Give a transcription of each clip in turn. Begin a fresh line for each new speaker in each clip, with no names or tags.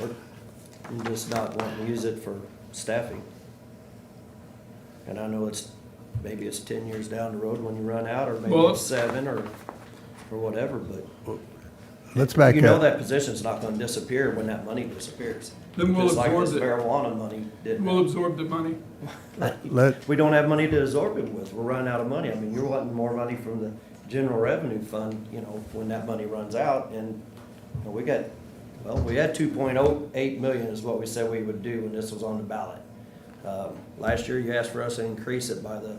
We're we're just not wanting to use it for staffing. And I know it's, maybe it's ten years down the road when you run out, or maybe
Well-
it's seven, or, or whatever, but
Let's back
you know
up.
that position's not gonna disappear when that money disappears.
Then we'll
Just like
absorb
this
it.
marijuana money didn't.
We'll absorb the money.
Let,
We don't have money to absorb it with. We're running out of money. I mean, you're wanting more money from the general revenue fund, you know, when that money runs out. And you know, we got, well, we had two point oh eight million is what we said we would do when this was on the ballot. Um, Last year, you asked for us to increase it by the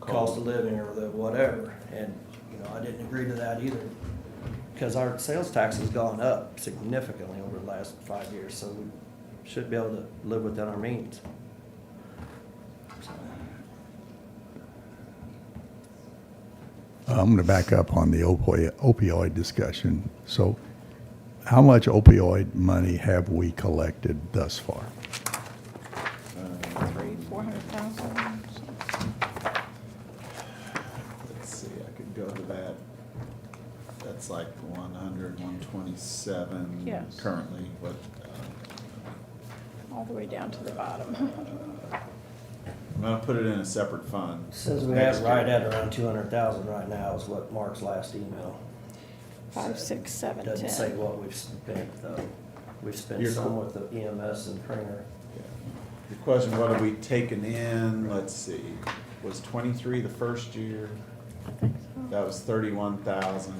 cost of living or the whatever. And, you know, I didn't agree to that either. Because our sales tax has gone up significantly over the last five years, so we should be able to live within our means.
I'm going to back up on the opioid, opioid discussion. So how much opioid money have we collected thus far?
Three, four hundred thousand?
Let's see, I could go to that. That's like 100, 127
Yes.
currently, but uh,
All the way down to the bottom.
I'm gonna put it in a separate fund.
Says we
next
have right
year.
at around two hundred thousand right now is what Mark's last email.
Five, six, seven,
Doesn't say
ten.
what we've spent though. We've spent
You're-
some with the EMS and Cringer.
Yeah. Your question, what have we taken in, let's see, was 23 the first year?
I think so.
That was 31,000,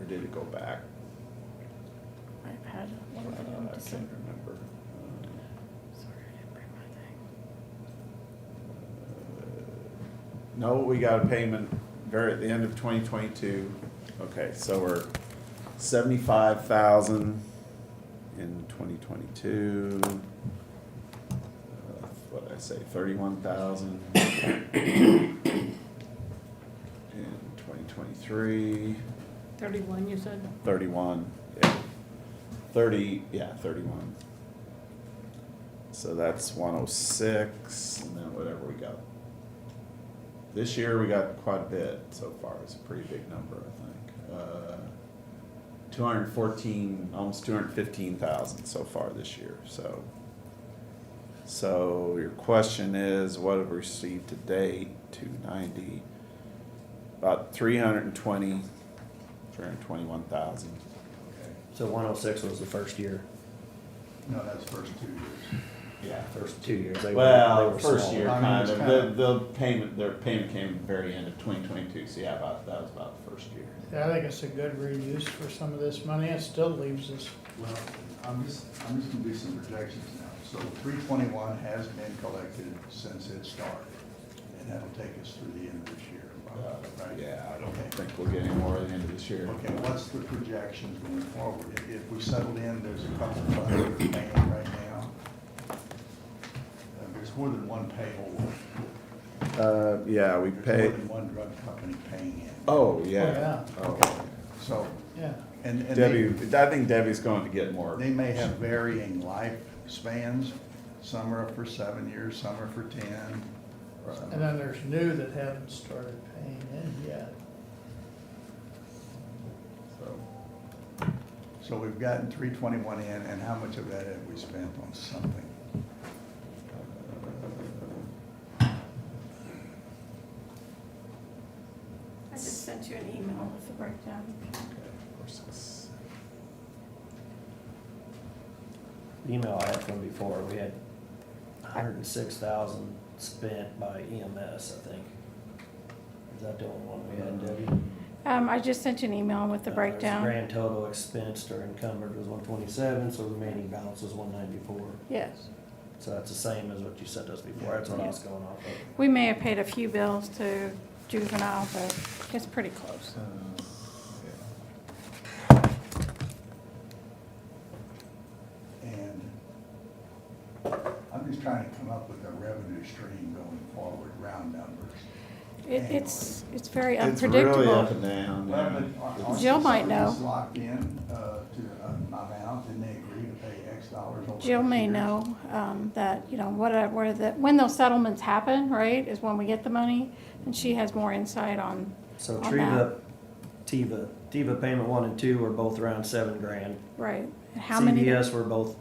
or did it go back?
I've had
Uh,
one
I
of them to say.
can't remember. Um,
Sorry, I didn't bring my thing.
No, we got a payment very at the end of twenty twenty-two. Okay, so we're seventy-five thousand in twenty twenty-two. What did I say, thirty-one thousand? In twenty twenty-three,
Thirty-one, you said?
thirty-one, yeah, thirty, yeah, thirty-one. So that's one oh six, and then whatever we got this year, we got quite a bit so far. It's a pretty big number, I think. Uh, two hundred fourteen, almost two hundred fifteen thousand so far this year. So, so your question is, what have we received to date? Two ninety, about 320, 321,000.
So one oh six was the first year,
No, that's first two years.
Yeah.
first two years. They were- they
Well,
were
first
small.
year
I mean,
kind
it's
of.
kind
The,
of-
the payment, their payment came at the very end of 2022. So yeah, about that was about the first year.
Yeah, I think it's a good reuse for some of this money. It still leaves us,
Well, I'm just, I'm just gonna do some projections now. So three twenty-one has been collected since it started, and that'll take us through the end of this year,
Uh,
probably, right?
Yeah, I don't
Okay.
think we'll get any more at the end of this year.
Okay, what's the projections going forward? If- If we settled in, there's a couple of other paying right now. Uh, There's more than one payable.
Uh, yeah, we
There's more
paid.
than one drug company paying it.
Oh,
yeah.
yeah. Oh.
So,
yeah.
and, and. they-
Debbie, I think Debbie's going to get more.
They may have varying lifespans. Some are for seven years, some are for ten.
And then there's new that haven't started paying in yet.
so.
So we've gotten three twenty-one in, and how much of that have we spent on something?
I just sent you an email with the breakdown.
Okay, four, six.
The Email I had from before, we had hundred and six thousand spent by EMS, I think. Is that the only one we had, Debbie?
Um, I just sent you an email with the
Uh,
breakdown.
Grand total expensed or encumbered was one twenty-seven, so remaining balance was one ninety-four.
Yes.
So that's the same as what you said to us before, that's what I was going off of.
We may have paid a few bills to juvenile, but it's pretty close.
Uh,
And I'm just trying to come up with a revenue stream going forward, round numbers.
It, it's, it's very
It's really up
unpredictable.
and down.
Well,
yeah.
but aren't- aren't
Jill might know.
facilities Locked in, uh, to an amount, and they agree to pay X dollars over.
Jill
X
may
years?
know, um, that, you know, what, a- where the, when those settlements happen, right, is when we get the money, and she has more insight on,
So
on
Triva,
that.
Tiva, Tiva payment one and two were both around seven grand.
Right, and how many?
CVS were both